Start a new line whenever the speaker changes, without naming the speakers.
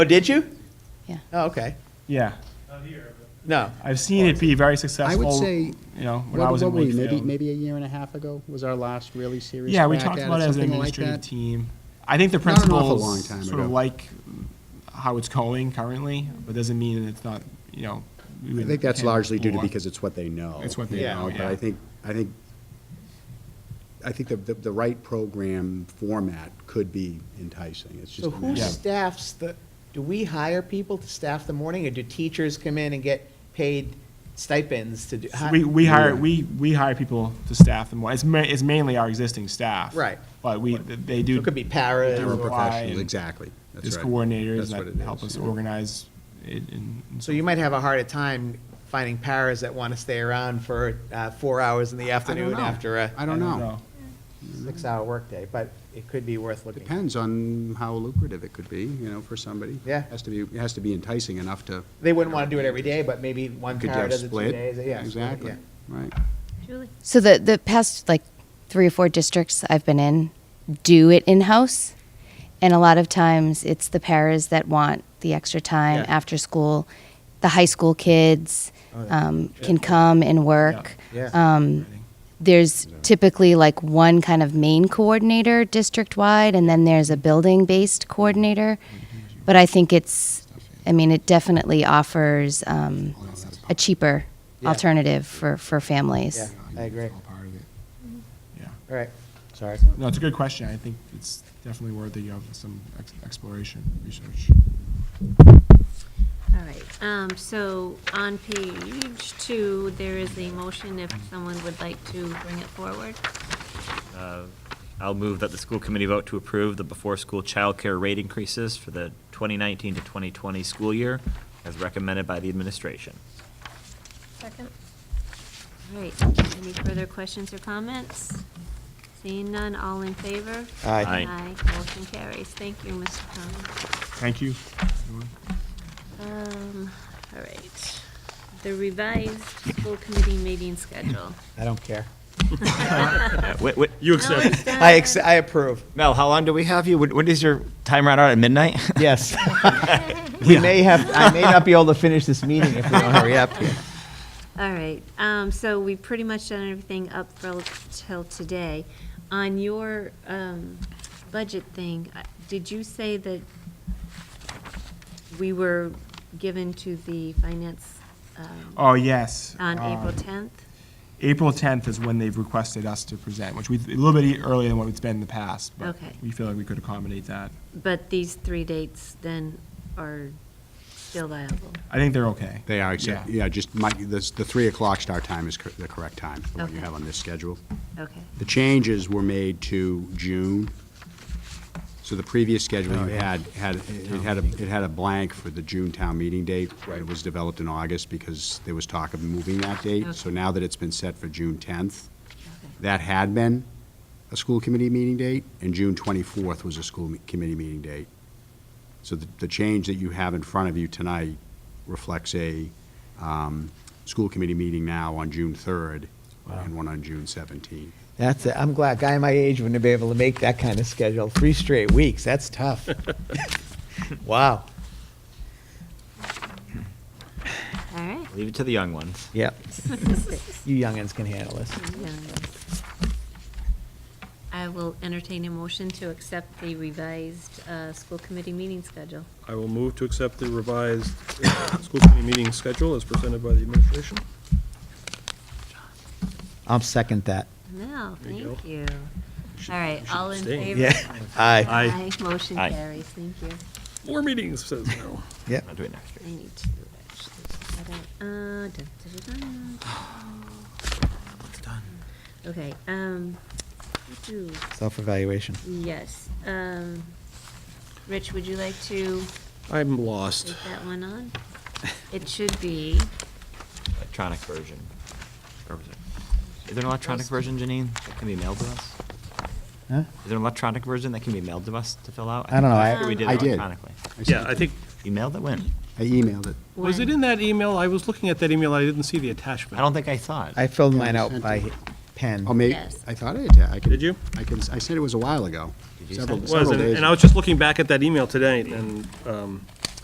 Oh, did you?
Yeah.
Oh, okay.
Yeah,
No.
I've seen it be very
I
successful.
would say,
You know, when I
what
was
what
in
were we, maybe,
Wakefield.
maybe a year and a half ago was our last really serious
Yeah, we
crack
talked
at
about it as an
something like
administrative
that?
team. I think the
Not an awful
principals
long time
sort of
ago.
like how it's going currently, but doesn't mean it's not. You know, we
I
would-
think that's
can
largely due to
more.
because it's what they know.
It's what they
you
know,
But
yeah.
I think, I think, I think the, the, the right program format could be enticing. It's just.
So
a
who
matter of-
staffs the, do we hire people to staff the morning, or do teachers come in and get paid stipends to do?
So We, we hire, we, we hire people to staff them. It's ma, it's mainly our existing staff.
Right.
But we, they
So
do.
It could be paras.
They were
or-
professional.
Paraprofessionals,
and
exactly. That's
There's
right.
coordinators
That's what it
that help
is,
us
yeah.
organize it and. and
So you might have a harder time finding paras that want to stay around for uh, four hours in the
I don't
afternoon
know.
after
I
a
don't know.
six-hour workday, but it could be worth looking.
Depends on how lucrative it could be, you know, for somebody.
Yeah.
Has to be, it has to be enticing enough to.
They wouldn't want to do it every day, but maybe one
Could you
para
have
does it two
split?
days. Yeah, split,
Exactly,
yeah.
right.
So the, the past like three or four districts I've been in do it in-house. And a lot of times it's the paras that want the extra time
Yeah. Oh,
after school. The high school kids um, can come and work.
Yeah.
Um, there's typically like one kind of main coordinator district wide, and then there's a building based coordinator.
Mm-hmm.
But I think it's, I mean, it definitely offers um, a cheaper
Yeah.
alternative for, for families.
Yeah, I agree. All
Yeah.
right, sorry.
No, it's a good question. I think it's definitely worthy of some ex- exploration, research.
All right, um, so on page two, there is a motion if someone would like to bring it forward.
Uh, I'll move that the school committee vote to approve the before-school childcare rate increases for the 2019 to 2020 school year as recommended by the administration.
Second. All right, any further questions or comments? Seeing none, all in favor?
Aye.
Aye.
Aye, motion carries. Thank you, Mr. Conlon.
Thank you. everyone.
Um, all right, the revised school committee meeting schedule.
I don't care.
Yeah, wait, wait, you accept.
Uh,
I, ex- I approve.
Mel, how long do we have you? When when does your time run out at midnight?
Yes. We may have, I may not be able to finish this meeting if we don't hurry up here.
All right, um, so we've pretty much done everything up for, till today. On your, um, budget thing, I- did you say that we were given to the finance, um,
Oh, yes.
on
Um,
April tenth?
April 10th is when they've requested us to present, which we, a little bit earlier than what it's been in the past, but
Okay.
we feel like we could accommodate that.
But these three dates then are still viable?
I think they're okay.
They are, except,
Yeah.
yeah, just my, this, the three o'clock start time is cor- the correct time, the one you
Okay.
have on this schedule.
Okay,
The changes were made to June. So the previous schedule you had, had, it had, a it had a blank for the June town meeting date. It was developed in August because there was talk of moving that date. So
Okay.
now that it's been set for June tenth,
okay,
that had been a school committee meeting date, and June twenty-fourth was a school me- committee meeting date. So the, the change that you have in front of you tonight reflects a, um, school committee meeting now on June third and one on June seventeenth.
That's it. I'm glad. Guy my age wouldn't be able to make that kind of schedule. Three straight weeks. That's tough. wow.
all right.
Leave it to the young ones.
Yep. You youngins can handle this.
I will entertain a motion to accept the revised uh, school committee meeting schedule.
I will move to accept the revised uh, school committee meeting schedule as presented by the administration.
I'll second that.
Mel,
There you
thank
go.
you. All right, all in
abstain.
favor?
Yeah. Aye.
Aye, motion
Aye.
carries, thank you.
Four meetings, says Mel.
Yep.
I'll do it next
I
year.
need to actually, set it. Uh, dun, dun, dun, dun.
It's done.
Okay, um, do-
Self-evaluation.
yes, um, Rich, would you like to
I'm lost.
take that one on? It should be,
Electronic version. Or was it- Is there an electronic version, Janine, that can be mailed to us?
Huh?
Is there an electronic version that can be mailed to us to fill out?
I don't know. I-
think we did
I
it
did.
electronically.
Yeah, I think,
You mailed it when?
I emailed it.
was it in that email? I was looking at that email, I didn't see the attachment.
I don't think I saw it.
I filled
I
mine out
sent
by
it.
pen.
Oh, maybe,
Yes.
I thought I did. I can-
Did you?
I can, I said it was a while ago.
Did you
Several-
send it?
Was,
several
and
days
and I was just looking back at that email today, and um,